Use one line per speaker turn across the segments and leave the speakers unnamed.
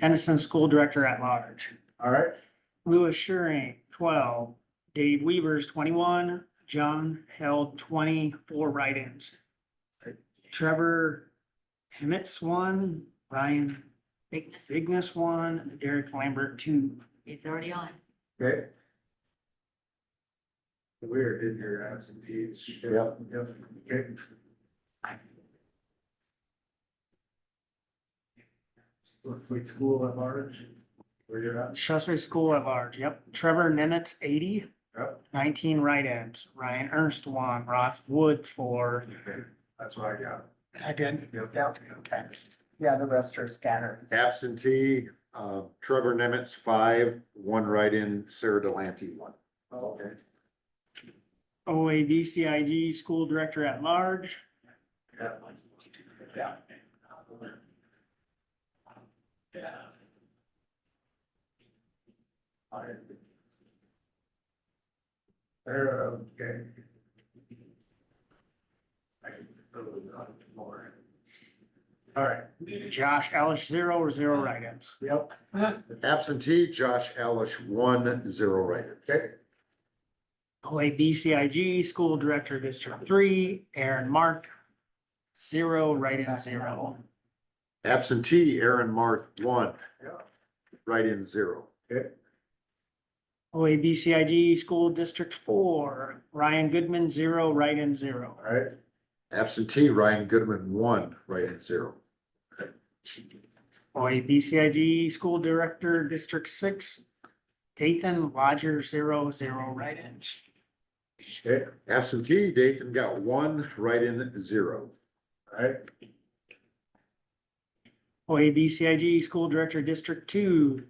Henderson School Director at Large.
All right,
Louis Shuring, twelve, Dave Weavers, twenty-one, John held 20 4 write-ins. Trevor Hemmett's one, Ryan
bigness
Bigness one, Derek Lambert two.
is already on.
okay. Weird, didn't hear absentees. Yep. Yep, okay. Let's switch school at large, where you're at.
Shasbury School at large, yep. Trevor Nemitz, 80,
Yep.
19 write-ins, Ryan Ernst one, Ross Wood four.
Okay, That's what I got.
I did.
Yep.
Okay. Yeah, the rest are scattered.
Absentee, uh, Trevor Nemitz, five, one write-in, Sarah Delante, one.
Oh, Okay.
OABCIG School Director at Large,
Yeah. There, okay. I can go to the floor. All right,
Josh Ellis, zero or zero write-ins.
yep,
Absentee, Josh Alish, one, zero write-in.
okay,
OABCIG School Director District Three, Aaron Mark, zero write-in zero.
Absentee, Aaron Marth, one,
yeah,
write-in, zero.
okay,
OABCIG School District Four, Ryan Goodman, zero write-in zero.
all right.
Absentee, Ryan Goodman, one, write-in, zero.
OABCIG School Director District Six, Dathan Lodger, zero, zero write-ins.
Okay,
Absentee, Dathan got one, write-in, zero.
all right,
OABCIG School Director District Two,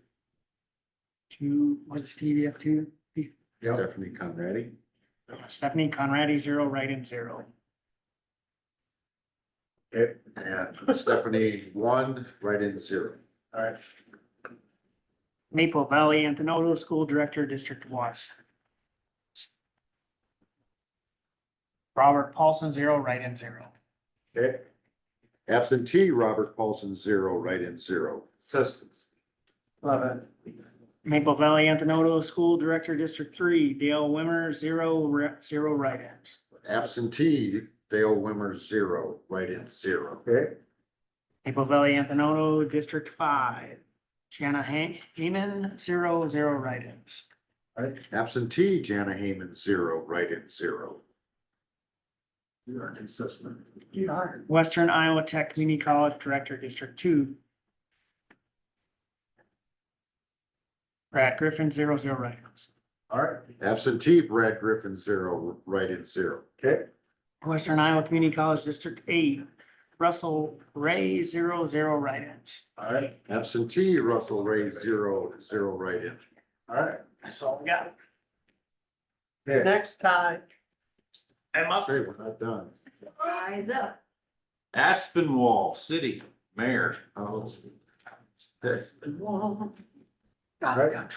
two, was it TDF two?
Yep.
Stephanie Conradi.
Stephanie Conradi, zero write-in zero.
okay,
And Stephanie, one, write-in, zero.
all right,
Maple Valley Anthonoto School Director, District One. Robert Paulson, zero, write-in, zero.
okay,
Absentee, Robert Paulson, zero, write-in, zero.
assistance.
Love it.
Maple Valley Anthonoto School Director, District Three, Dale Wimmer, zero, re- zero write-ins.
Absentee, Dale Wimmer, zero, write-in, zero.
Okay,
Maple Valley Anthonoto, District Five, Shanna Han- Heyman, zero, zero write-ins.
all right,
Absentee, Jana Hayman, zero, write-in, zero.
you are consistent.
You are.
Western Iowa Tech Community College Director, District Two. Brad Griffin, zero, zero write-ins.
All right,
Absentee, Brad Griffin, zero, write-in, zero.
okay,
Western Iowa Community College District Eight, Russell Ray, zero, zero write-ins.
all right,
Absentee, Russell Ray, zero, zero write-in.
all right.
That's all we got.
Okay.
Next time.
Say, we're not done.
Rise up.
Aspenwall City Mayor.
Oh.
That's,
Whoa.
Right.
God, God.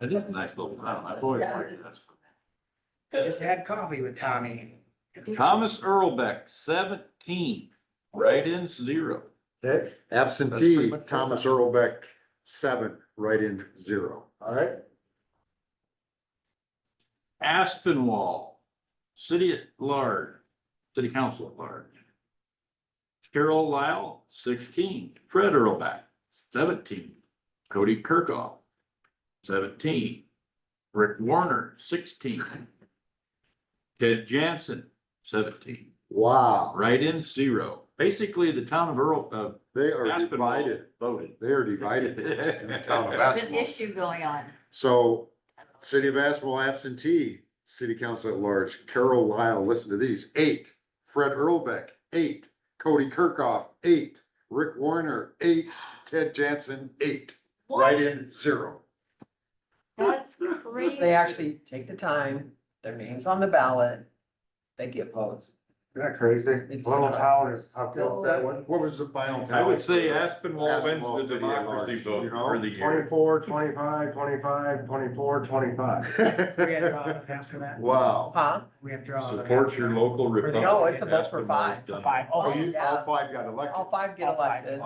that is a nice little town. I've always liked that.
Just had coffee with Tommy.
Thomas Earlbeck, seventeen, write-ins zero.
Okay,
Absentee, Thomas Earlbeck, seven, write-in, zero.
all right,
Aspenwall, City at Large, City Council at Large. Carol Lyle, sixteen, Fred Earlbeck, seventeen, Cody Kirkhoff, seventeen, Rick Warner, sixteen, Ted Jansen, seventeen,
Wow,
write-in zero. Basically, the town of Earl, of
they are
Aspenwall
divided,
voted.
they are divided in the town of
There's an
Aspenwall.
issue going on.
So, City of Aspenwall absentee, City Council at large, Carol Lyle, listen to these, eight. Fred Earlbeck, eight. Cody Kirkhoff, eight. Rick Warner, eight. Ted Jansen, eight. Write-in, zero.
That's crazy.
They actually take the time, their names on the ballot, they get votes.
isn't that crazy?
It's-
Little town is, I felt that one.
What was the final?
I uh, would say
tally?
Aspenwall
Aspenwall
wins the
City at
democracy
large, you
vote
know,
for the year.
24, 25, 25, 24, 25.
We had draw after that.
Wow.
Huh?
We have draw.
Support your local Republican.
No, it's a vote for
Aspenwall
five.
done.
Five,
Oh,
oh,
you,
yeah.
all five got elected.
All five get
All five.
elected.